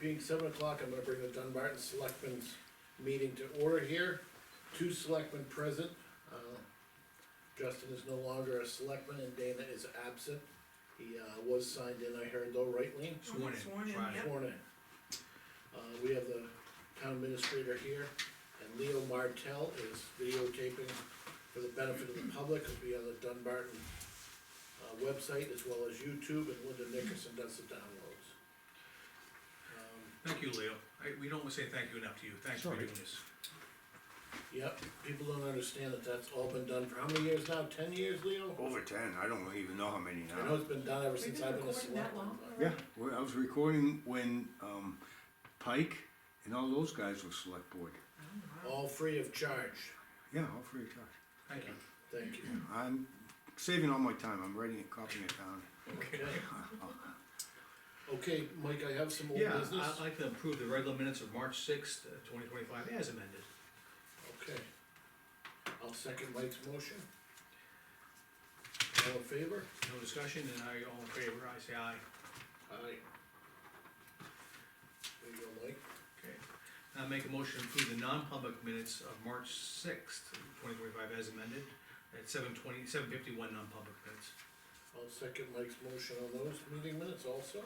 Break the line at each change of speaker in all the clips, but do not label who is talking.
being seven o'clock, I'm gonna bring the Dunbarton Selectmen's meeting to order here. Two selectmen present, uh, Justin is no longer a selectman and Dana is absent. He, uh, was signed in, I heard though, right, Lean?
Sworn in
Sworn in,
Friday.
yep.
Sworn in. Uh, we have the town administrator here, and Leo Martell is videotaping for the benefit of the public, it'll be on the Dunbarton uh, website as well as YouTube, and Linda Nickerson does the downloads. Um,
Thank you, Leo. I, we don't say thank you enough to you. Thanks for
Sorry.
doing this.
Yep, people don't understand that that's all been done for how many years now, ten years, Leo?
Over ten, I don't even know how many
I know
now.
it's been done ever
We've
since
been
I've been a
recording that
selectman.
long
but-
Yeah, well, I was recording when, um, Pike and all those guys were select board.
All free of charge,
Yeah, all free of charge.
Thank you.
thank you.
I'm saving all my time, I'm writing it, copying it down.
Okay. Okay, Mike, I have some old
Yeah,
business.
I'd like to approve the regular minutes of March sixth, uh, twenty twenty-five as amended.
Okay. I'll second Mike's motion. All in favor?
No discussion, and I, all in favor, I say aye.
Aye. There you go, Mike.
Okay. I make a motion to approve the non-public minutes of March sixth, twenty twenty-five as amended, at seven twenty, seven fifty-one non-public minutes.
I'll second Mike's motion on those meeting minutes also.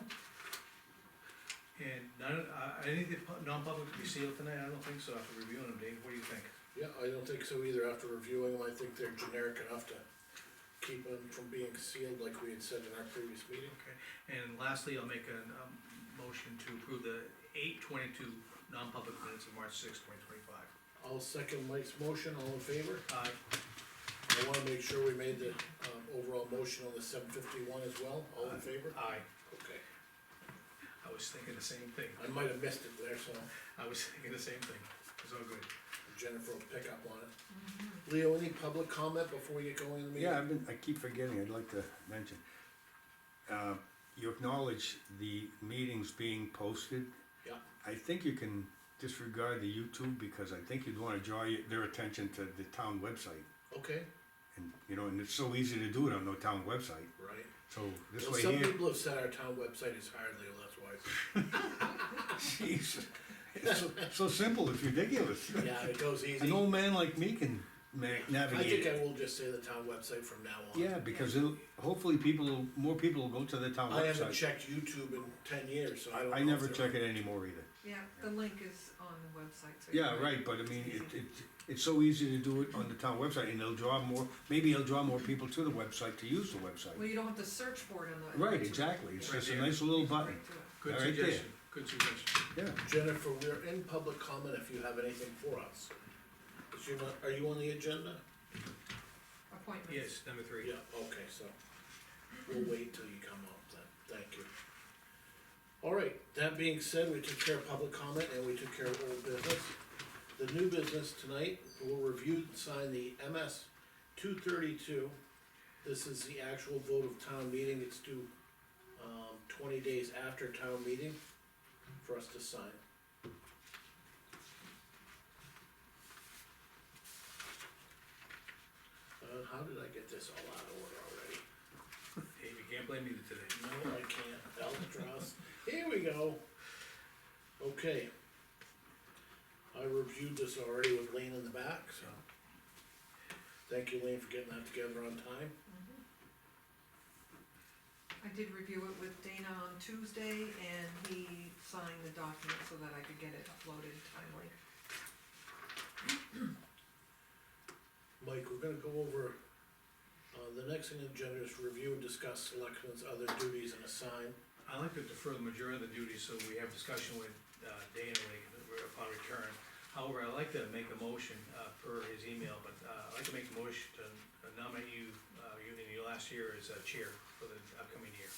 And none, uh, any of the pu- non-public to be sealed tonight? I don't think so, after reviewing them, Dave. What do you think?
Yeah, I don't think so either after reviewing them, I think they're generic enough to keep them from being sealed like we had said in our previous meeting.
Okay, and lastly, I'll make a, um motion to approve the eight twenty-two non-public minutes of March sixth, twenty twenty-five.
I'll second Mike's motion, all in favor?
Aye.
I wanna make sure we made the, um, overall motion on the seven fifty-one as well, all in favor?
Aye,
Okay,
I was thinking the same thing,
I might have missed it there, so.
I was thinking the same thing, it's all good.
Jennifer will pick up on it. Leo, any public comment before we get going in the meeting?
Yeah, I've been, I keep forgetting, I'd like to mention. Uh, you acknowledge the meetings being posted.
Yeah,
I think you can disregard the YouTube because I think you'd wanna draw your- their attention to the town website.
okay,
And, you know, and it's so easy to do it on no town website,
right.
so this
Well,
way
some
here,
people have said our town website is hard, Leo, that's why.
jeez. It's so- so simple, it's ridiculous.
Yeah, it goes
An
easy.
old man like me can ma-
I
navigate
think
it.
I will just say the town website from now on.
Yeah, because it'll, hopefully people, more people will go to the town
I haven't
website.
checked YouTube in ten years, so I don't know.
I
if
never
they're-
check it anymore either.
Yeah, the link is on the website. so you
Yeah,
can-
right, but I mean, it, it, it's so easy to do it on the town website and it'll draw more, maybe it'll draw more people to the website to use the
Well,
website.
you don't have to search for it on the.
Right, exactly, it's
Right
just a
there.
nice little button,
Right to it.
Good
All right, there.
suggestion, good suggestion.
yeah.
Jennifer, we're in public comment if you have anything for us. Is you not, are you on the agenda?
Appointments.
Yes, number three.
Yeah, okay, so we'll wait till you come up then, thank you. All right, that being said, we took care of public comment and we took care of old business. The new business tonight, we'll review and sign the MS two thirty-two. This is the actual vote of town meeting, it's due, um, twenty days after town meeting for us to sign. Uh, how did I get this all out of order already?
Dave, you can't blame me today.
No, I can't, Albatross, here we go. Okay. I reviewed this already with Lane in the back, so. Thank you, Lane, for getting that together on time.
I did review it with Dana on Tuesday and he signed the document so that I could get it uploaded timely.
Mike, we're gonna go over, uh, the next thing on the agenda is review and discuss selectmen's other duties and assign.
I like to defer the majority of the duties, so we have discussion with uh, Dana like, upon return. However, I'd like to make a motion uh, per his email, but uh, I'd like to make a motion to nominate you, uh, you in your last year as uh, chair for the upcoming year.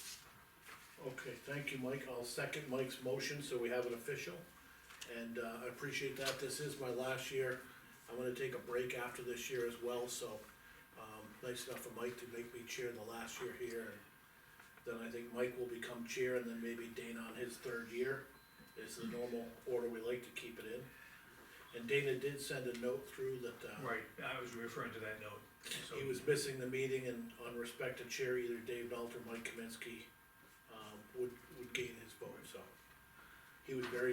Okay, thank you, Mike, I'll second Mike's motion, so we have it official. And, uh, I appreciate that, this is my last year, I'm gonna take a break after this year as well, so, um, nice enough of Mike to make me chair the last year here. Then I think Mike will become chair, and then maybe Dana on his third year, is the normal order we like to keep it in. And Dana did send a note through that, uh,
Right, I was referring to that note, so.
he was missing the meeting and on respect to chair, either Dave Nault or Mike Kaminsky, um, would, would gain his vote, so. he was very